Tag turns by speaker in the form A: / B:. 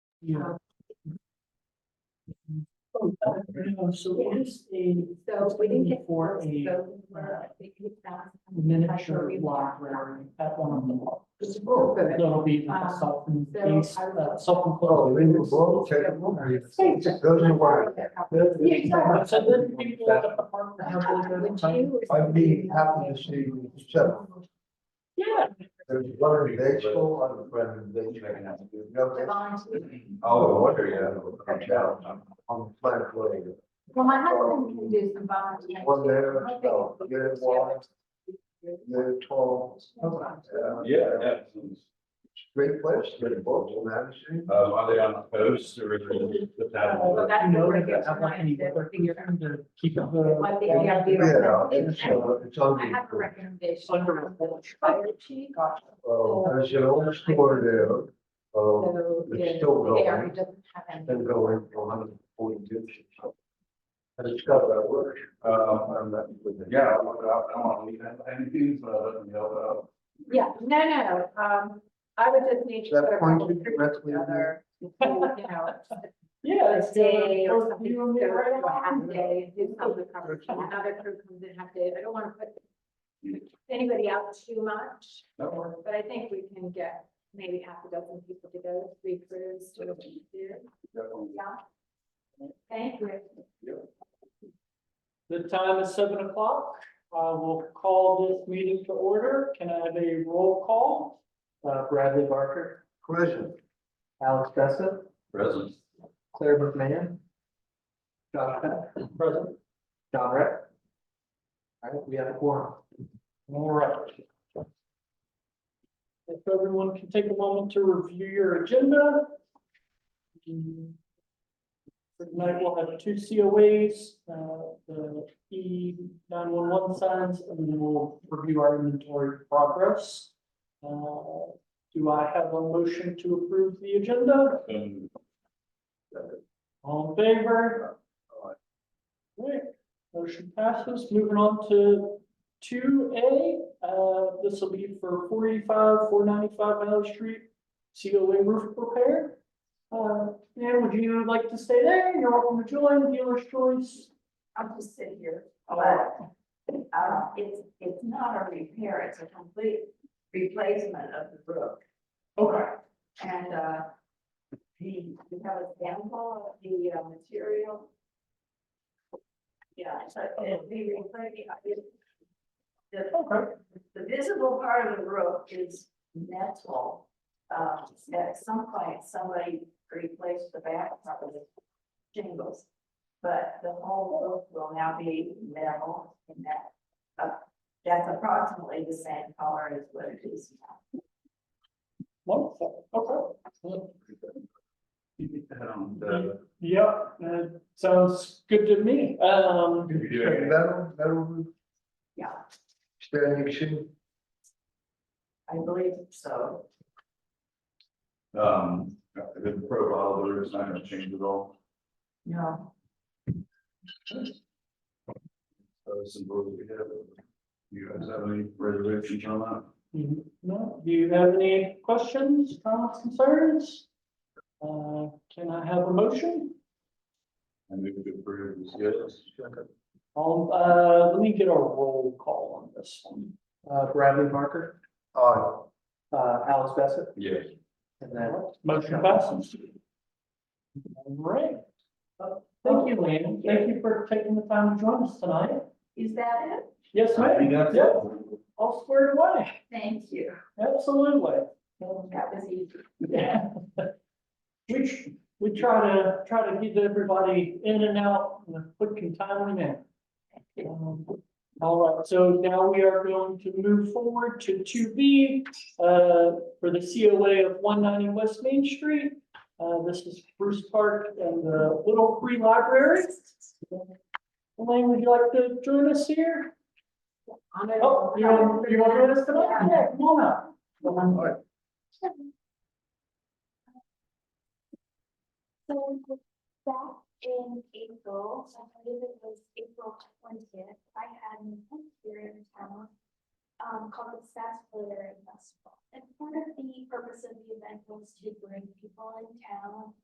A: Yeah. uh, So it is a
B: So we didn't get.
A: For a
B: so, uh, we can pass.
A: miniature library at one of the walls.
B: Just real good.
A: That'll be
B: Um,
A: south and
B: so
A: east,
B: I will-
A: south and
C: Oh,
A: close.
C: they were both terrible. Those are why.
B: Yeah, exactly.
A: So then people at the park that have those are the
B: Would
A: time.
B: you-
C: I'd be happy to see you show.
A: Yeah.
C: There's one in Batesville, on the Brennan Batesville.
B: Divine.
C: Oh, I wonder, yeah. I'm down On the plant way.
B: Well, my husband can do some volunteering.
C: One there, oh, you're long, you're tall. Uh,
D: Yeah, yeah.
C: it's a Great place, great books, Madison.
D: Um, are they on the coast or is it the
B: Well,
D: town?
B: that's
A: You know,
B: where
A: like
B: it
A: they
B: gets
A: have like any weather thing you're trying to keep up
C: Uh,
B: Like the
A: the.
B: idea of-
C: Yeah, it's, uh, it's
B: I
C: on
B: have a
C: the.
B: recommendation.
A: Under-
B: Fire chief.
C: Oh, there's an old store there, uh,
B: So
C: It's
B: the-
C: still
B: the area
C: going.
B: doesn't have any.
C: been going for hundred and forty years or so. And it's got that work, um, and that with the.
D: Yeah, I'll look it up. I don't want to leave anything, so I don't know.
B: Yeah, no, no, um, I would just need to
C: That
B: put a
C: point
B: couple
C: you-
B: of trees
C: that's what you-
B: together. before, You know,
A: Yeah.
B: a
A: it's-
B: day or something,
A: You
B: so
A: and me right
B: a
A: on.
B: half day, do some of the coverage, and another crew comes in half day, I don't wanna put anybody out too much,
D: That works.
B: but I think we can get maybe half a dozen people to go, three crews to do,
D: Definitely.
B: yeah. Thank you.
A: The time is seven o'clock. I will call this meeting to order. Can I have a roll call? Uh, Bradley Barker,
C: Present.
A: Alex Bessa,
D: Present.
A: Claire McMahon. John Peck, present. John Rex. All right, we have a quorum. All right. If everyone can take a moment to review your agenda. Mm. For tonight, we'll have two COAs, uh, the E nine one one signs, and then we'll review our inventory progress. Uh, do I have a motion to approve the agenda?
D: Um,
A: All in favor?
C: Aye.
A: Great, motion passes. Moving on to two A, uh, this will be for forty-five, four ninety-five Miller Street, COA roof repair. Uh, Dan, would you like to stay there? You're welcome to join, dealer's choice.
E: I'll just sit here,
A: Oh.
E: but, uh, it's, it's not a repair, it's a complete replacement of the roof.
A: Okay,
E: And, uh, the, we have a sample of the, uh, material. Yeah, so it'd be replacing, it-
A: Okay.
E: the, the visible part of the roof is metal. Uh, at some point, somebody replaced the back part of the shingles. But the whole roof will now be metal and that, uh, that's approximately the same color as what it is now.
A: wonderful, okay.
D: you think that, um, the-
A: Yep, uh, sounds good to me. Um,
D: if you do it,
C: Metal, metal roof,
E: Yeah,
C: standing seam.
E: I believe so.
D: Um, the profile of the roof is not gonna change at all.
E: No,
D: So simple. You guys have any reservations on that?
A: Mhm. No, do you have any questions, comments, concerns? Uh, can I have a motion?
D: And we could approve this, yes.
A: Um, uh, let me get a roll call on this one. Uh, Bradley Barker,
C: Uh,
A: uh, Alice Bassett,
D: Yes.
A: and then. Motion passes. All right. Uh, Thank you, Lynn. Thank you for taking the time to join us tonight.
E: is that it?
A: Yes,
D: I
A: ma'am.
D: think that's.
A: Yep, all squared away.
E: Thank you.
A: Absolutely.
E: That was easy.
A: Yeah. We, tr- we try to, try to get everybody in and out in a quick and timely manner. Um, All right, so now we are going to move forward to two B, uh, for the COA of one ninety West Main Street. Uh, this is Bruce Park and the Little Free Library. Elaine, would you like to join us here? Oh, you want, you want to join us tonight? Yeah, come on up.
F: So back in April, I believe it was April twentieth, I had an event here in town. Um, called the Sarsaparilla Festival. And part of the purpose of the event was to bring people in town